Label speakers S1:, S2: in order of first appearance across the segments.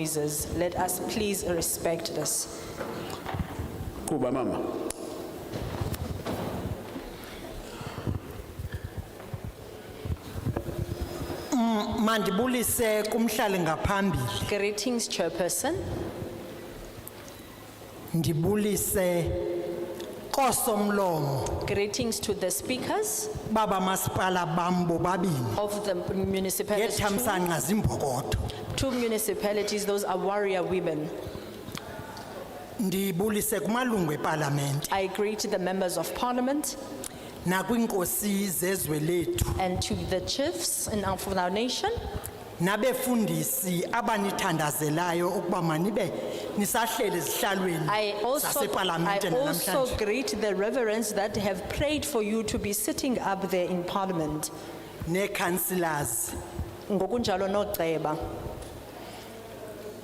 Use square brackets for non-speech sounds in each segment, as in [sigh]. S1: noises. Let us please respect this.
S2: kuba mama
S3: Mandibulise kumhlali ngaphambili,
S1: Greetings, Chairperson.
S3: ndibulise kosomlomo
S1: Greetings to the speakers
S3: baba masipala bambo babini.
S1: of the municipalities.
S3: Yethamsanqa zimbokodo.
S1: Two municipalities, those are warrior women.
S3: Ndibulise kumalungu eParliament
S1: I greet the members of parliament
S3: na kwinkosi zezwe lethu
S1: and to the chiefs in our, for our nation
S3: nabefundisi abanithandazelayo ukuba manibe nisahlele ezihlalweni
S1: I also, I
S3: zaseParliamente
S1: also
S3: namhlanje.
S1: greet the reverends that have prayed for you to be sitting up there in parliament.
S3: neeCouncillors.
S1: Ngokunjalo noceba.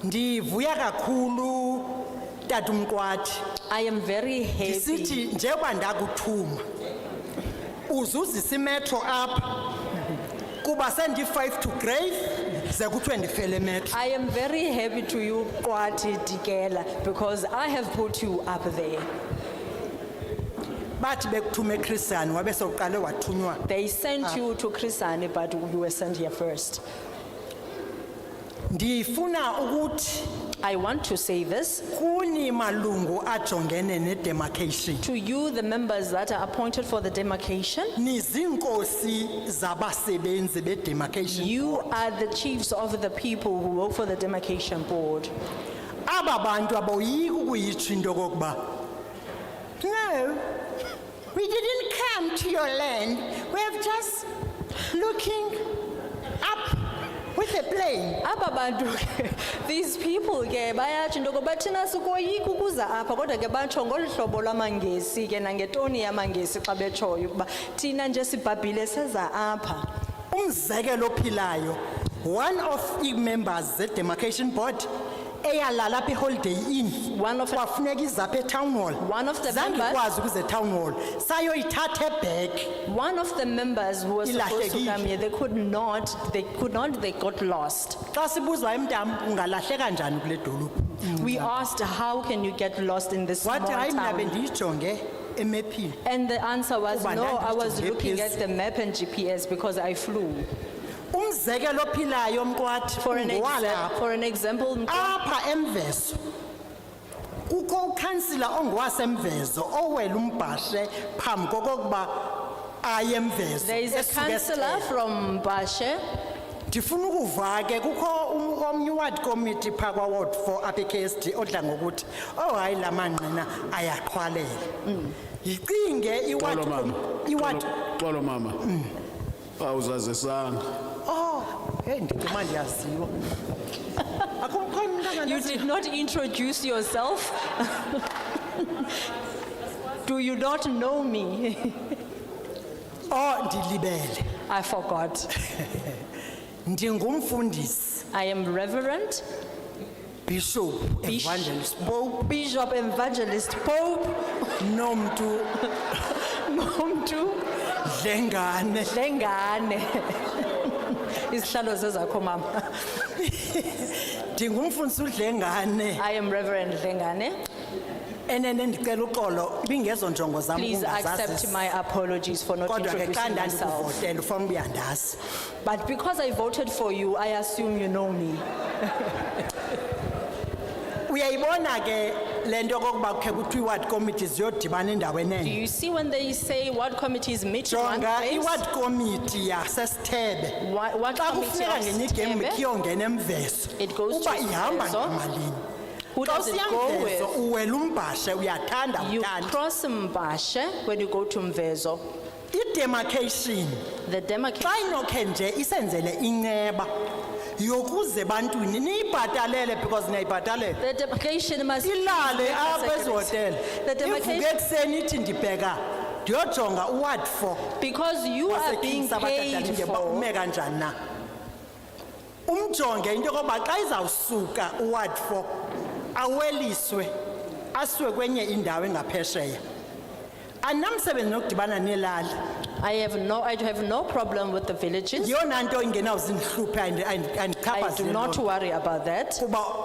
S3: Ndivuya kakhulu tatumqwathi
S1: I am very happy.
S3: Ndisithi njengoba ndakuthuma uzuzisa imetro apha kuba sendi-five to grave ze kuthiwe ndifele metro
S1: I am very happy to you, Kwati Dikela, because I have put you up there.
S3: bathi bekuthume echristian wabe sowuqale wathunywa
S1: They sent you to Krisani, but you were sent here first.
S3: ndifuna ukuthi
S1: I want to say this
S3: kuni malungu ajongene nedemarcation
S1: to you, the members that are appointed for the demarcation.
S3: niziinkosi zabasebenzi bedemarcation
S1: You are the chiefs of the people who work for the demarcation board.
S3: aba bantu aboyiki ukuyitsho into okokuba no we didn't come to your land we're just looking up with a plane
S1: Aba bantu ke, these people ke bayatsho into yokokuba thina sikoyika ukuza apha kodwa ke batsho ngolu hlobo lwamaNgesi ke nangetoni yamaNgesi xa betshoyo ukuba thina nje sibhabhile seza apha.
S3: umzekelo ophilayo one of ii-members ze-demarcation board eyalala apha eholiday inn
S1: One of-
S3: kwafuneka izapha etown hall
S1: One of the
S3: Zange
S1: members-
S3: ikwazi ukuza etown hall sayoyithatha ebhek
S1: One of the members who was supposed to come here, they could not, they could not, they got lost.
S3: xa sibuzwa emntam ungalahleka njani kule dolophu
S1: We asked, how can you get lost in this small
S3: wathi hayi mna
S1: town?
S3: bendiyijonge emephini
S1: And the answer was,
S3: Kuba
S1: no, I was
S3: ndandithi
S1: looking
S3: GPS.
S1: at the map and GPS because I flew.
S3: umzekelo ophilayo mkwathi
S1: For an example,
S3: ngowalapha
S1: for an example,
S3: Ah, apha emvezo kukho ukhansila ongowasemvezo owela umbhashe phambi kokokuba aye emvezo
S1: there is a
S3: esuke
S1: councillor
S3: esixeko.
S1: from Bashe.
S3: ndifuna ukuva ke kukho um- omnye iward committee phaa kwaward four apha ekhsd odla ngokuthi oh hayi la manqina ayaqhwalela
S1: Mm.
S3: yicinge iward
S2: xolo mama
S3: com- iward
S2: Xolo- xolo mama awuzazisanga
S3: Oh, hey, ndicuma ndiyaziwa. Akukho umntana
S1: You
S3: nasi.
S1: did not introduce yourself.
S3: [laughs]
S1: Do you not know me? [laughs]
S3: Oh, ndilibele.
S1: I forgot.
S3: Ndingumfundisi,
S1: I am Reverend
S3: bishop,
S1: Bishop.
S3: evangelist, pope,
S1: Bishop Evangelist Pope
S3: nomntu
S1: [laughs] Nomtu
S3: dlengane.
S1: [laughs] Lengane. Isihlalo sezakho mama.
S3: Ndingumfundisi udlengane.
S1: I am Reverend Lengane.
S3: Enene ndicela uxolo, ibingezo njongo zam
S1: Please accept
S3: ukungazazisi.
S1: my apologies for not
S3: Kodwa ke xa
S1: introducing myself.
S3: ndandikuvotela ufana ubuyandazi.
S1: But because I voted for you, I assume you know me.
S3: Uyayibona ke le nto kokuba kukhe kuthiwa iward committee ziyodibana endaweni
S1: Do
S3: enye.
S1: you see when they say what committees meet in one
S3: Hmm. Jonga
S1: place?
S3: iward committee yasesithebe.
S1: What what
S3: xa
S1: committee
S3: kufuneka
S1: of
S3: ngenye igemu
S1: Stebe?
S3: kuyongena emveso
S1: It goes to
S3: uba ihamba
S1: Mvezo.
S3: ngamalini
S1: Who
S3: xa
S1: does it
S3: usiya
S1: go
S3: mvezo
S1: with?
S3: uwela umbhashe uyathanda
S1: You
S3: uthanda
S1: cross Mbashe when you go to Mvezo.
S3: idemarcation
S1: The demarcation.
S3: xa inokhe nje isenzele inceba yokuze bantwini niyibhatalele because niyayibhatalela
S1: The demarcation must.
S3: ilale apha ezihotele
S1: The
S3: ivuke
S1: demarcation,
S3: ekuseni ithi ndibheka ndiyojonga uward four
S1: because you are being paid
S3: njengoba
S1: for.
S3: ume kanjani na umjonge into yokoba xa izawusuka uward four aweliswe asiwe kwenye indawo engaphesheya anamsebenzi nokudibana nelali
S1: I have no, I have no problem with the villages.
S3: yiyona nto ingenawuzindihlupha and- and-
S1: I do
S3: andichaphazele
S1: not
S3: loo nto.
S1: worry about that.
S3: kuba